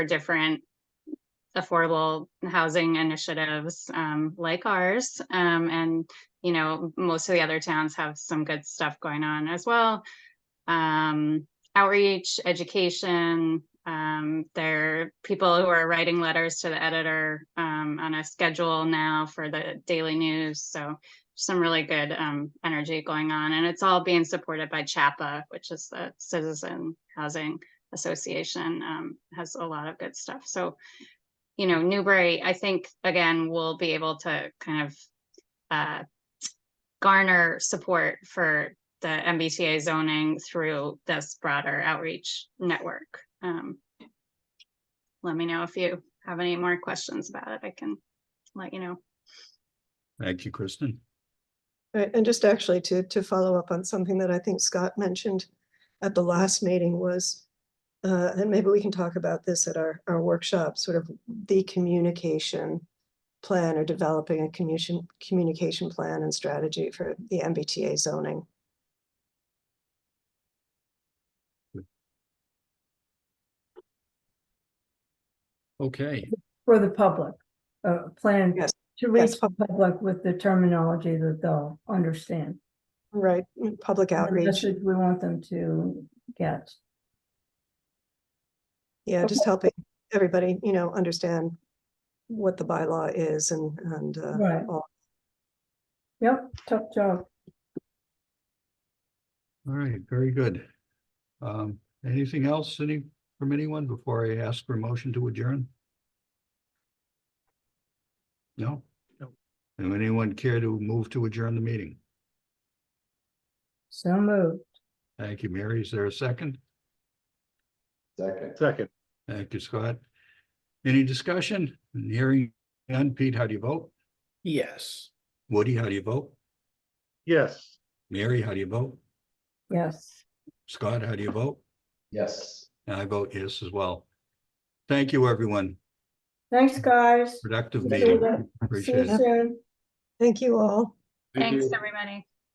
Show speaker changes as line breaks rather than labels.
different affordable housing initiatives um like ours. Um and, you know, most of the other towns have some good stuff going on as well. Um outreach, education, um there are people who are writing letters to the editor um on a schedule now for the daily news. So some really good um energy going on and it's all being supported by CHAPA, which is the Citizen Housing Association, um, has a lot of good stuff. So, you know, Newbury, I think, again, will be able to kind of uh, garner support for the MBTA zoning through this broader outreach network. Um, let me know if you have any more questions about it. I can let you know.
Thank you, Kristen.
Right, and just actually to, to follow up on something that I think Scott mentioned at the last meeting was, uh, and maybe we can talk about this at our, our workshop, sort of the communication plan or developing a communication, communication plan and strategy for the MBTA zoning.
Okay,
For the public, uh, plan
Yes,
to reach
yes,
the public with the terminology that they'll understand.
Right, mm, public
the
outreach,
message We want them to get.
yeah, just helping everybody, you know, understand what the bylaw is and, and, uh,
Right.
all.
Yep, tough job.
all right, very good. Um, anything else any from anyone before I ask for a motion to adjourn? No?
No.
Would anyone care to move to adjourn the meeting?
So moved.
Thank you, Mary. Is there a second?
Second. Second.
Thank you, Scott. Any discussion? Hearing none. Pete, how do you vote?
Yes.
Woody, how do you vote?
Yes.
Mary, how do you vote?
Yes.
Scott, how do you vote?
Yes.
And I vote yes as well. Thank you, everyone.
Thanks, guys.
Productive
See you
meeting.
then. See
Appreciate
you
it.
soon.
Thank you all.
Thanks, everybody.